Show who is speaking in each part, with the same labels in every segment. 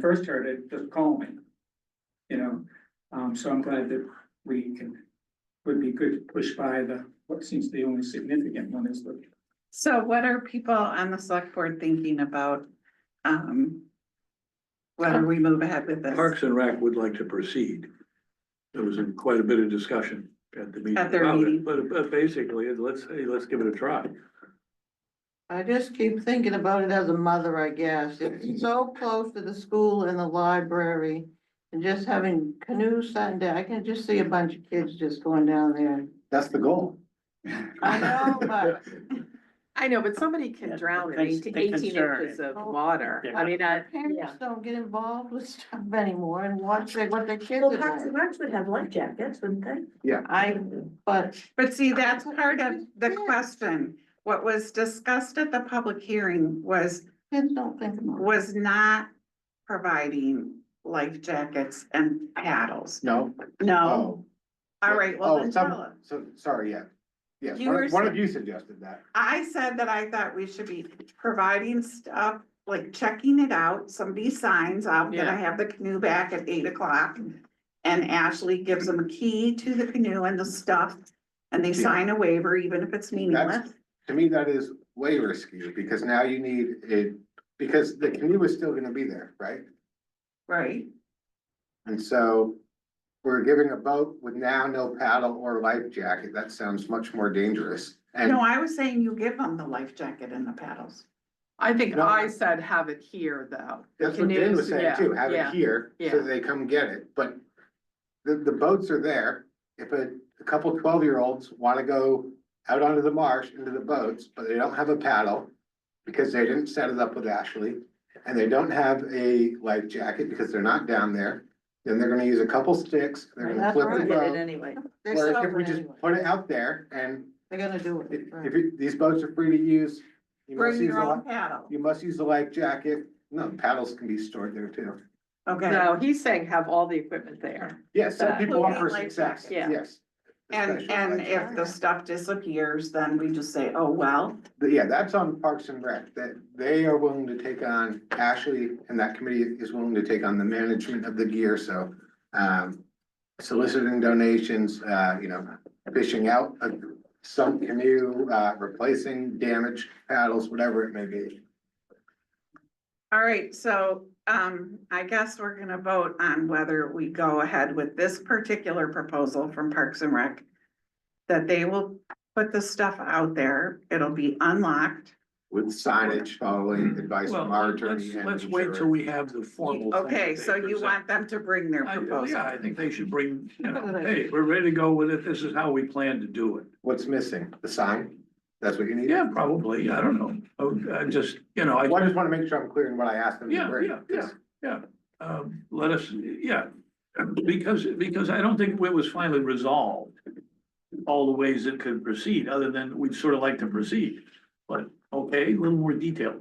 Speaker 1: first heard it, just call me. You know, um, so I'm glad that we can, would be good to push by the, what seems the only significant one is the.
Speaker 2: So what are people on the select board thinking about, um, whether we move ahead with this?
Speaker 3: Parks and Rec would like to proceed. There was quite a bit of discussion at the meeting.
Speaker 2: At their
Speaker 3: about it,
Speaker 2: meeting.
Speaker 3: But, but basically, let's, hey, let's give it a try.
Speaker 4: I just keep thinking about it as a mother, I guess. It's so close to the school and the library. And just having canoe Sunday, I can just see a bunch of kids just going down there.
Speaker 5: That's the goal.
Speaker 4: I know, but
Speaker 6: I know, but somebody
Speaker 1: Yeah,
Speaker 6: can drown in
Speaker 1: they-
Speaker 6: eighteen
Speaker 1: they can
Speaker 6: 18
Speaker 1: drown
Speaker 6: inches of
Speaker 4: Oh.
Speaker 6: water. I mean, I,
Speaker 4: parents don't get involved with stuff anymore and watch their- what their kids
Speaker 7: Well,
Speaker 4: are
Speaker 7: Parks and
Speaker 4: doing.
Speaker 7: Recs would have life jackets, wouldn't they?
Speaker 4: I, but
Speaker 2: But see, that's part of the question. What was discussed at the public hearing was,
Speaker 4: kids don't think about it.
Speaker 2: was not providing life jackets and paddles.
Speaker 5: No.
Speaker 2: No? All right, well,
Speaker 5: Oh,
Speaker 2: then
Speaker 5: some-
Speaker 2: tell us.
Speaker 5: So, sorry, yeah. Yes,
Speaker 2: You
Speaker 5: one
Speaker 2: were
Speaker 5: of- one
Speaker 2: sa-
Speaker 5: of you suggested that.
Speaker 2: I said that I thought we should be providing stuff, like checking it out, somebody signs, I'm gonna
Speaker 6: Yeah.
Speaker 2: have the canoe back at eight o'clock. And Ashley gives them a key to the canoe and the stuff, and they
Speaker 5: Yeah.
Speaker 2: sign a waiver, even if it's meaningless.
Speaker 5: To me, that is way risky because now you need a, because the canoe is still gonna be there, right?
Speaker 2: Right,
Speaker 5: And so we're giving a boat with now no paddle or life jacket. That sounds much more dangerous. And
Speaker 2: no, I was saying you give them the life jacket and the paddles.
Speaker 6: I think
Speaker 5: No.
Speaker 6: I said have it here though. The
Speaker 5: that's what Dan was
Speaker 6: canoes,
Speaker 5: saying
Speaker 6: yeah,
Speaker 5: too, have it
Speaker 6: yeah.
Speaker 5: here so
Speaker 6: yeah.
Speaker 5: they come get it. But the, the boats are there. If a, a couple twelve-year-olds wanna go out onto the marsh, into the boats, but they don't have a paddle because they didn't set it up with Ashley, and they don't have a life jacket because they're not down there, then they're gonna use a couple sticks, they're gonna
Speaker 4: That's
Speaker 5: flip the
Speaker 4: right.
Speaker 5: boat.
Speaker 7: anyway.
Speaker 4: They're
Speaker 5: Whereas if
Speaker 4: stubborn
Speaker 5: we just
Speaker 4: anyway.
Speaker 5: put it out there and
Speaker 4: They're gonna do
Speaker 5: if,
Speaker 4: it.
Speaker 5: if
Speaker 4: right.
Speaker 5: it- these boats are free to use, you must
Speaker 2: Bring
Speaker 5: use
Speaker 2: your
Speaker 5: a,
Speaker 2: own
Speaker 5: li-
Speaker 2: paddle,
Speaker 5: you must use the life jacket.
Speaker 2: Mm-hmm.
Speaker 5: No, paddles can be stored there too.
Speaker 2: okay?
Speaker 6: No, he's saying have all the equipment there.
Speaker 5: Yes, some
Speaker 3: Uh,
Speaker 6: That
Speaker 5: people
Speaker 2: would
Speaker 5: want
Speaker 2: be
Speaker 5: for
Speaker 2: life
Speaker 5: success,
Speaker 6: jacket. Yeah.
Speaker 5: yes.
Speaker 2: And,
Speaker 5: Especially
Speaker 2: and
Speaker 5: life
Speaker 2: if the
Speaker 4: jacket.
Speaker 2: stuff disappears, then we just say, oh, well,
Speaker 5: But Yeah, that's on Parks and Rec, that they are willing to take on, Ashley and that committee is willing to take on the management of the gear, so. Um, soliciting donations, uh, you know, fishing out a sunk canoe, uh, replacing damaged paddles, whatever it may be.
Speaker 2: All right, so um, I guess we're gonna vote on whether we go ahead with this particular proposal from Parks and Rec. That they will put the stuff out there, it'll be unlocked.
Speaker 5: With signage following
Speaker 2: Mm-hmm.
Speaker 5: advice
Speaker 3: Well,
Speaker 5: from our attorney
Speaker 3: let's-
Speaker 5: and
Speaker 3: Let's wait till
Speaker 5: insurer.
Speaker 3: we have the formal. thing
Speaker 2: Okay,
Speaker 3: that
Speaker 2: so
Speaker 3: they
Speaker 2: you
Speaker 3: present.
Speaker 2: want them to bring their
Speaker 3: I-
Speaker 2: proposal.
Speaker 3: Yeah, I think they should bring, you know,
Speaker 4: Good idea.
Speaker 3: hey, we're ready to go with it. This is how we plan to do it.
Speaker 5: What's missing? The sign? That's what you need?
Speaker 3: Yeah, probably. I don't know. Oh, I just, you know, I.
Speaker 5: Well, I just wanna make sure I'm clear in what I asked them to
Speaker 3: Yeah,
Speaker 5: bring.
Speaker 3: yeah, yeah, yeah. Um, let us, yeah, um, because, because I don't think it was finally resolved. All the ways it could proceed, other than we'd sort of like to proceed, but okay, a little more detail.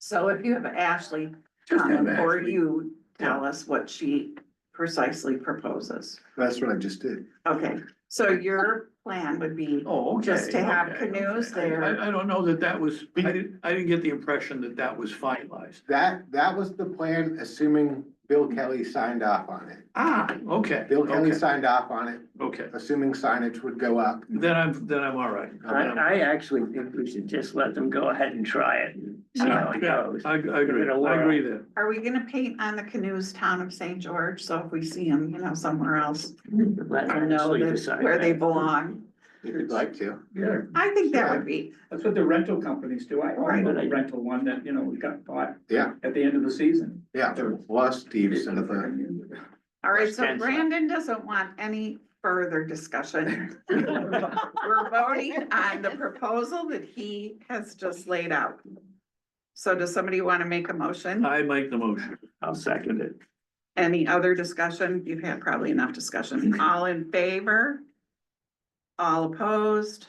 Speaker 2: So if you have Ashley,
Speaker 3: Just have
Speaker 2: um, or
Speaker 3: Ashley.
Speaker 2: you tell us what she precisely proposes.
Speaker 5: That's what I just did.
Speaker 2: Okay, so your plan would be,
Speaker 3: Oh, okay.
Speaker 2: Just to have
Speaker 3: okay,
Speaker 2: canoes
Speaker 3: okay.
Speaker 2: there.
Speaker 3: I, I don't know that that was, I didn't, I didn't get the impression that that was finalized.
Speaker 5: That, that was the plan, assuming Bill Kelly signed off on it.
Speaker 3: Ah, okay.
Speaker 5: Bill Kelly
Speaker 3: okay,
Speaker 5: signed off on it,
Speaker 3: Okay,
Speaker 5: assuming signage would go up.
Speaker 3: then I'm, then I'm all right.
Speaker 8: I, I actually think we should just let them go ahead and try it and see how it
Speaker 3: Yeah,
Speaker 8: goes.
Speaker 3: I, I agree,
Speaker 8: It'll
Speaker 3: I
Speaker 8: work.
Speaker 3: agree there.
Speaker 2: are we gonna paint on the canoes town of St. George? So if we see them, you know, somewhere else,
Speaker 8: Let
Speaker 2: we know
Speaker 8: Ashley
Speaker 2: that-
Speaker 8: decide
Speaker 2: where they
Speaker 8: that.
Speaker 2: belong.
Speaker 5: If you'd like to.
Speaker 8: Yeah.
Speaker 2: I think that
Speaker 5: Sure.
Speaker 2: would be,
Speaker 1: That's what the rental companies do. I
Speaker 2: Right.
Speaker 1: own a rental one that, you know, we got bought.
Speaker 5: Yeah.
Speaker 1: At the end of the season.
Speaker 5: Yeah, plus Steve's and the,
Speaker 2: all right, so
Speaker 8: Expensive.
Speaker 2: Brandon doesn't want any further discussion. We're voting on the proposal that he has just laid out. So does somebody want to make a motion?
Speaker 3: I make the motion.
Speaker 8: I'll second it.
Speaker 2: Any other discussion? You've had probably enough discussion. All in favor? All opposed?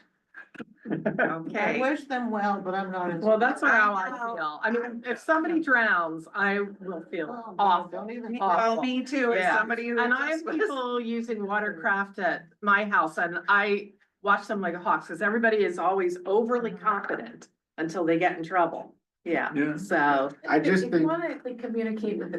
Speaker 4: I
Speaker 2: Okay,
Speaker 4: wish them well, but I'm not. as-
Speaker 6: Well, that's how I
Speaker 2: I know.
Speaker 6: feel. I mean, if somebody drowns, I will
Speaker 4: Oh,
Speaker 6: feel
Speaker 4: God,
Speaker 6: awful.
Speaker 4: Don't even.
Speaker 2: well, me too, as
Speaker 6: Yeah.
Speaker 2: somebody who.
Speaker 6: And I have
Speaker 2: just was-
Speaker 6: people using watercraft at my house and I watch them like hawks because everybody is always overly confident until they get in trouble. yeah,
Speaker 3: Yeah.
Speaker 6: so.
Speaker 5: I just
Speaker 7: If
Speaker 5: think.
Speaker 7: you want to communicate with the